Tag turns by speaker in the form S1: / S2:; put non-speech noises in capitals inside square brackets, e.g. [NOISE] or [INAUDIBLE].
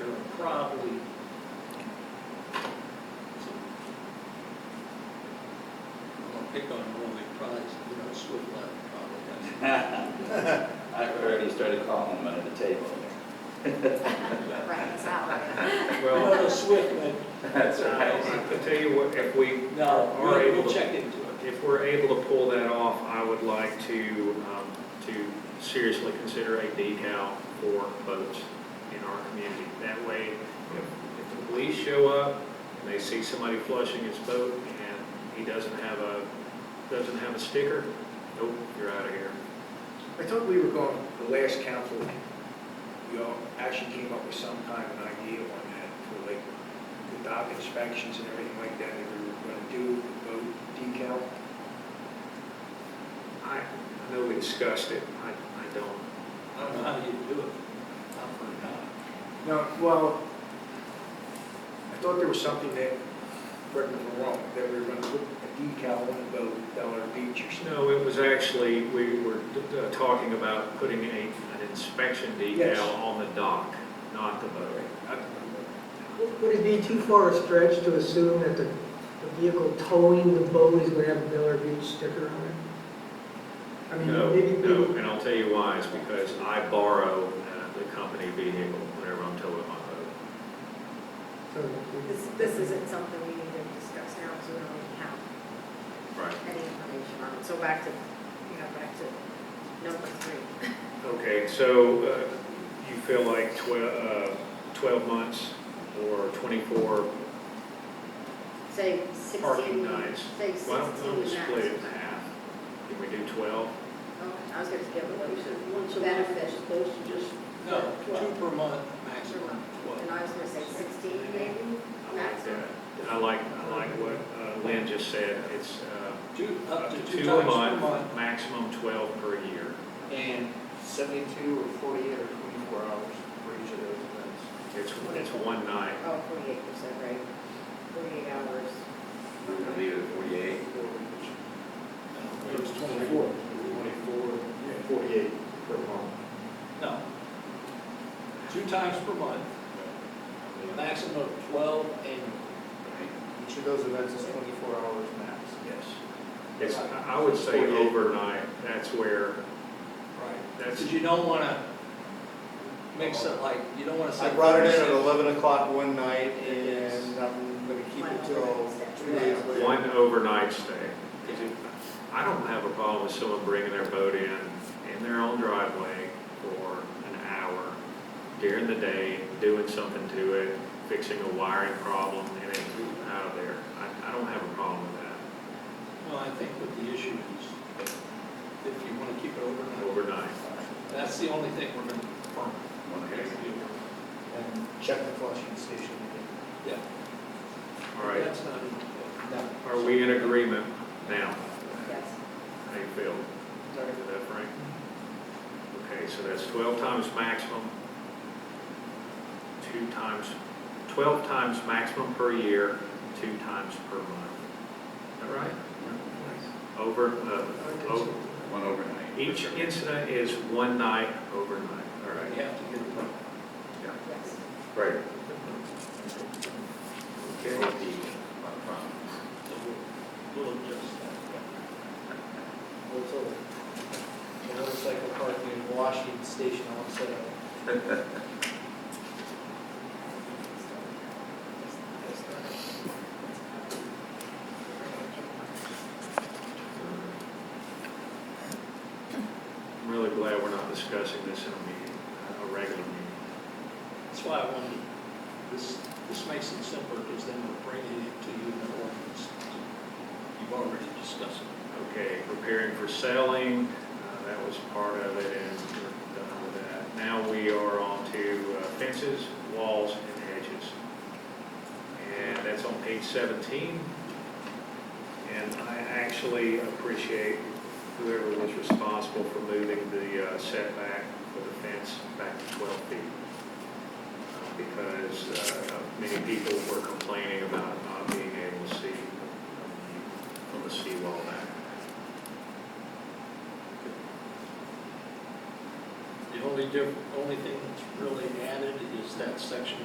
S1: probably. I'm gonna pick on Norway products, you know, Swift Line probably
S2: [LAUGHS] I've already started calling them under the table.
S3: Right, it's not right.
S1: Well,
S4: Well,
S1: no, Swift, but
S2: That's right.
S4: I tell you what, if we
S1: no,
S4: are
S1: we'll,
S4: able
S1: we'll
S4: to,
S1: check into it.
S4: if we're able to pull that off, I would like to, um, to seriously consider a decal for boats in our community. That way, if, if the police show up and they see somebody flushing his boat and he doesn't have a, doesn't have a sticker, nope, you're out of here.
S5: I thought we were going, the last council, y'all actually came up with some kind of an idea on that for like the dock inspections and everything like that, that we were gonna do, the boat decal.
S4: I, I know we discussed it, I, I don't,
S1: I don't know how you do it. I'm for it not.
S5: No, well, I thought there was something that, correct me if I'm wrong, that we were gonna put a decal on the boat, Delaware Beach or something.
S4: No, it was actually, we were uh, talking about putting a, an inspection
S5: Yes.
S4: decal on the dock, not the boat.
S5: I don't remember.
S6: Would it be too far a stretch to assume that the the vehicle towing the boat is going to have a Miller Beach sticker on it? I mean,
S4: No,
S6: maybe-
S4: no, and I'll tell you why, is because I borrow uh, the company vehicle whenever I'm towing my boat.
S6: so-
S3: This, this isn't something we need to discuss now, because we don't really have
S4: Right.
S3: any information on it. So back to, you know, back to number three.
S4: Okay, so uh, you feel like twelve, twelve months or twenty-four,
S3: Say sixteen.
S4: Parking nights.
S3: Say
S4: why
S3: sixteen
S4: don't why don't we
S3: max.
S4: split it in half? Can we do twelve?
S3: Oh, I was gonna get
S7: Well,
S3: with
S7: you said once a month as opposed to just,
S1: No, two
S7: Twelve.
S1: per month, maximum
S3: you,
S1: twelve.
S3: and I was gonna say sixteen maybe,
S4: I like
S3: maximum.
S4: that. I like, I like what uh, Lynn just said, it's, uh,
S1: Two,
S4: Up to two
S1: times per
S4: a month,
S1: month.
S4: maximum 12 per year.
S8: and 72 or 48 or 24 hours for each of those events.
S4: It's, it's one night.
S3: Oh, forty-eight percent, right? Forty-eight hours.
S2: We're gonna leave it at forty-eight.
S1: It was twenty-four.
S8: 24, 48 per month.
S1: No. Two times per month, maximum of twelve annual.
S8: Each of those events is 24 hours max.
S5: Yes.
S4: It's, I would say
S8: 48.
S4: overnight, that's where,
S1: Right.
S4: that's,
S1: Because you don't want to mix it like, you don't want to say.
S8: I brought it in at 11 o'clock one night and I'm gonna keep it till two days later.
S4: one overnight stay.
S1: Yeah.
S4: I don't have a problem with someone bringing their boat in, in their own driveway for an hour during the day, doing something to it, fixing a wiring problem, and it's out of there. I, I don't have a problem with that,
S1: Well, I think what the issue is, if you want to keep it overnight,
S4: overnight.
S1: that's the only thing we're going to confirm.
S4: Okay.
S8: And check the flushing station.
S1: Yeah.
S4: All right,
S1: That's not, in-
S4: are we in agreement now?
S3: Yes.
S4: How you feel? Is that Frank? Okay, so that's 12 times maximum, two times, 12 times maximum per year, two times per month. Is that right? Over, uh, over-
S2: One overnight.
S4: each incident is one night overnight, all
S1: you
S4: right?
S1: have to get a permit.
S3: Yes.
S4: Right.
S2: Okay.
S4: Okay.
S1: So we'll, we'll adjust that.
S8: Well, it's a motorcycle parking in Washington Station all set up.
S4: I'm really glad we're not discussing this in a meeting, a regular meeting.
S1: That's why I wanted, this, this makes it simpler because then we're bringing it to you in an ordinance. You've already discussed it.
S4: Okay, preparing for selling, uh, that was part of it, and we're done with that. Now we are on to uh, fences, walls, and hedges. And that's on page 17. And I actually appreciate whoever was responsible for moving the uh, setback for the fence back to 12 feet. Uh, Because uh, many people were complaining about not being able to see from the seawall back.
S1: The only diff, only thing that's really added is that section